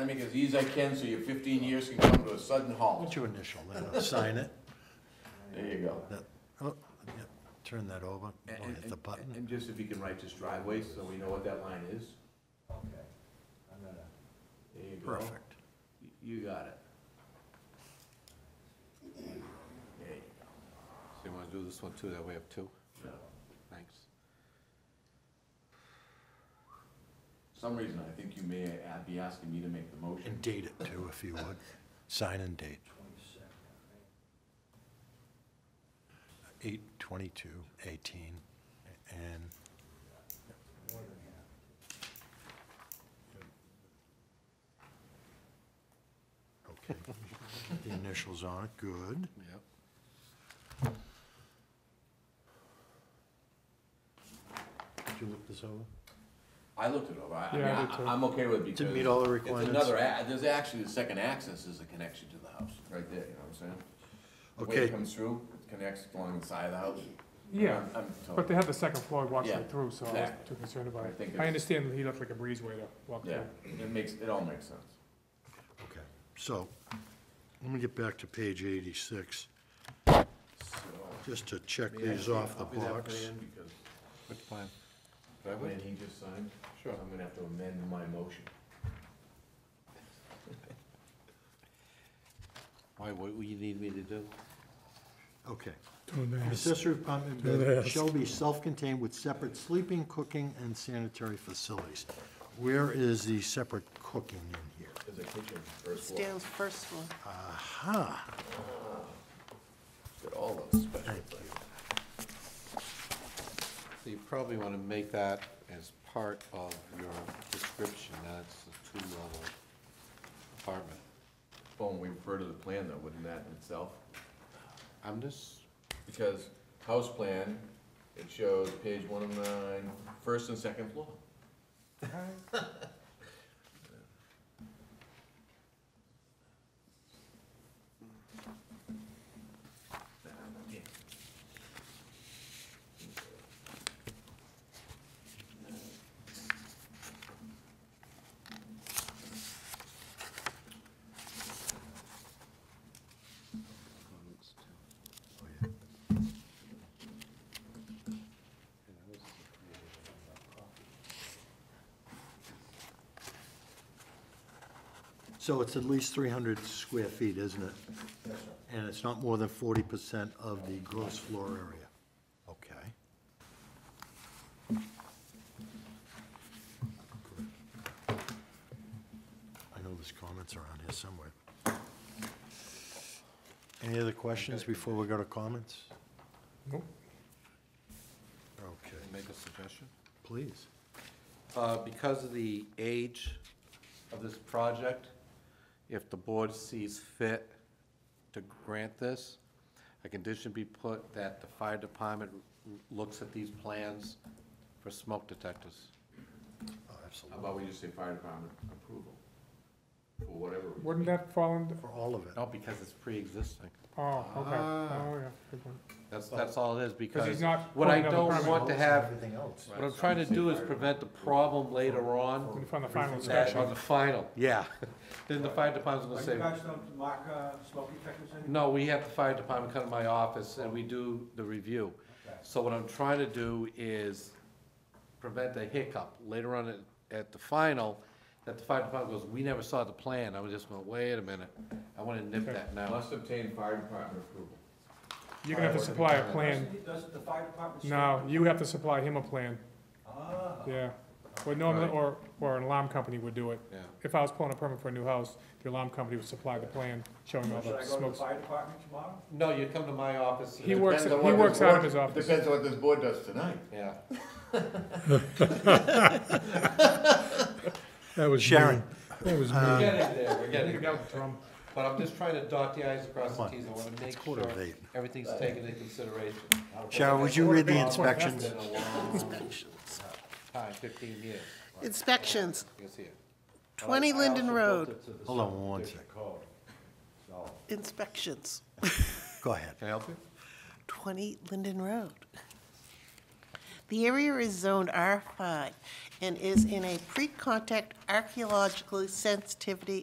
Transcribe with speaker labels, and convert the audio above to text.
Speaker 1: to make it as easy as I can so your fifteen years can come to a sudden
Speaker 2: Why
Speaker 1: halt.
Speaker 2: don't you initial that, I'll sign it,
Speaker 1: There you go.
Speaker 2: that, oh, yeah, turn that over,
Speaker 1: And-
Speaker 2: Don't hit the
Speaker 1: and- and-
Speaker 2: button.
Speaker 1: And just if you can write this driveway so we know what that line is.
Speaker 3: Okay, I'm gonna,
Speaker 1: There you go.
Speaker 2: Perfect.
Speaker 1: You got it. There you go.
Speaker 4: So you wanna do this one too, that way up two?
Speaker 1: No.
Speaker 4: Thanks.
Speaker 1: For Some reason, I think you may uh, be asking me to make the motion.
Speaker 2: And date it too, if you would. Sign and date,
Speaker 3: twenty-second, right?
Speaker 2: eight twenty-two eighteen, and
Speaker 3: More than half.
Speaker 2: Okay. The initials on it, good.
Speaker 4: Yep.
Speaker 2: Did you look this over?
Speaker 1: I looked it over. I, I mean,
Speaker 5: Yeah, I did
Speaker 1: I-
Speaker 5: too.
Speaker 1: I'm okay with it
Speaker 2: Didn't meet
Speaker 1: because
Speaker 2: all the
Speaker 1: it's
Speaker 2: requirements?
Speaker 1: another, a- there's actually, the second access is a connection to the house, right there, you know what I'm saying? The way it
Speaker 2: Okay.
Speaker 1: comes through, it connects along the side of the house.
Speaker 5: Yeah,
Speaker 1: I'm- I'm
Speaker 5: but
Speaker 1: totally,
Speaker 5: they have the second floor walk
Speaker 1: Yeah,
Speaker 5: right through, so I wasn't
Speaker 1: exactly.
Speaker 5: too concerned about
Speaker 1: I
Speaker 5: it.
Speaker 1: think
Speaker 5: I
Speaker 1: it's-
Speaker 5: understand that he'd have like a breezeway to walk
Speaker 1: yeah,
Speaker 5: through.
Speaker 1: it makes, it all makes sense.
Speaker 2: Okay, so, let me get back to page eighty-six,
Speaker 1: So.
Speaker 2: just to check
Speaker 1: may I
Speaker 2: these
Speaker 1: see a
Speaker 2: off the
Speaker 1: copy of that
Speaker 2: box.
Speaker 1: plan? Because
Speaker 4: Which plan?
Speaker 1: that
Speaker 4: Driveway?
Speaker 1: plan he just signed, so
Speaker 4: Sure.
Speaker 1: I'm gonna have to amend my motion.
Speaker 4: Why, what do you need me to do?
Speaker 2: Okay.
Speaker 5: Don't ask.
Speaker 2: Accessory apartment
Speaker 5: Don't
Speaker 2: building
Speaker 5: ask.
Speaker 2: um, shall be self-contained with separate sleeping, cooking, and sanitary facilities. Where is the separate cooking in here?
Speaker 1: There's a kitchen, first floor,
Speaker 6: Dale's first one.
Speaker 2: Aha,
Speaker 1: got all those special
Speaker 2: thank
Speaker 1: things.
Speaker 2: you.
Speaker 4: So you probably wanna make that as part of your description, that it's a two-level apartment.
Speaker 1: Well, when we refer to the plan though, wouldn't that in itself?
Speaker 4: I'm just,
Speaker 1: Because house plan, it shows page one of nine, first and second floor.
Speaker 2: So it's at least three hundred square feet, isn't it? And it's not more than forty percent of the gross floor area. Okay. I know there's comments around here somewhere. Any other questions before we go to comments?
Speaker 5: Nope.
Speaker 2: Okay,
Speaker 4: make a suggestion?
Speaker 2: please.
Speaker 4: Uh, Because of the age of this project, if the board sees fit to grant this, a condition be put that the fire department looks at these plans for smoke detectors.
Speaker 2: Oh,
Speaker 1: How
Speaker 2: Absolutely.
Speaker 1: about we just say fire department approval? For whatever reason.
Speaker 5: Wouldn't that fall under,
Speaker 2: For all of it.
Speaker 4: No, because it's pre-existing.
Speaker 5: oh, okay,
Speaker 2: Ah.
Speaker 5: oh, yeah, good point.
Speaker 4: That's, that's all it is, because.
Speaker 5: he's not
Speaker 4: What I
Speaker 5: putting on the
Speaker 4: don't
Speaker 5: permit.
Speaker 4: want to have,
Speaker 2: Everything else.
Speaker 4: what I'm trying to do is prevent the problem later on,
Speaker 5: In front of the final
Speaker 4: that
Speaker 5: inspection.
Speaker 4: on the final.
Speaker 2: Yeah.
Speaker 4: Then the fire department's
Speaker 3: Are you
Speaker 4: gonna say,
Speaker 3: guys don't mark, uh, smoke detectors anymore?
Speaker 4: no, we have the fire department come to my office and we do the review. So what I'm trying to do is prevent a hiccup later on at, at the final, that the fire department goes, we never saw the plan. I was just going, wait a minute, I wanna nip that now.
Speaker 1: Must obtain fire department approval.
Speaker 5: You're gonna have to supply a plan.
Speaker 3: Doesn't, doesn't the fire department? say-
Speaker 5: No, you have to supply him a plan,
Speaker 3: Ah,
Speaker 5: yeah. Well, normally,
Speaker 4: Right.
Speaker 5: or, or an alarm company would do it.
Speaker 4: Yeah,
Speaker 5: If I was pulling a permit for a new house, the alarm company would supply the plan showing all
Speaker 3: should
Speaker 5: the
Speaker 3: I go to the
Speaker 5: smokes.
Speaker 3: fire department tomorrow?
Speaker 4: no, you come to my office.
Speaker 5: He works, he
Speaker 1: Depends on what
Speaker 5: works
Speaker 1: this
Speaker 5: out of
Speaker 1: board-
Speaker 5: his office.
Speaker 1: Depends on what this board does tonight.
Speaker 4: Yeah.
Speaker 5: That was
Speaker 2: Sharon. Um,
Speaker 5: That was
Speaker 4: We're getting there, we're getting there.
Speaker 5: Trump.
Speaker 4: But I'm just trying to dot the i's and cross the
Speaker 2: Come on,
Speaker 4: t's, I wanna make sure
Speaker 2: quarter of eight.
Speaker 4: everything's taken into consideration.
Speaker 2: Sharon, would you read the
Speaker 5: Well, what happened?
Speaker 2: inspections?
Speaker 4: Been a long time, fifteen years,
Speaker 6: Inspections,
Speaker 4: you can see it.
Speaker 6: 20
Speaker 4: I- I
Speaker 6: Linden
Speaker 4: also
Speaker 6: Road.
Speaker 4: built it to the
Speaker 2: Hold on one
Speaker 4: subdivision
Speaker 2: sec.
Speaker 4: code.
Speaker 6: inspections,
Speaker 2: Go ahead.
Speaker 4: Can I help you?
Speaker 6: 20 Linden Road. The area is zoned R5 and is in a pre-contact archaeological sensitivity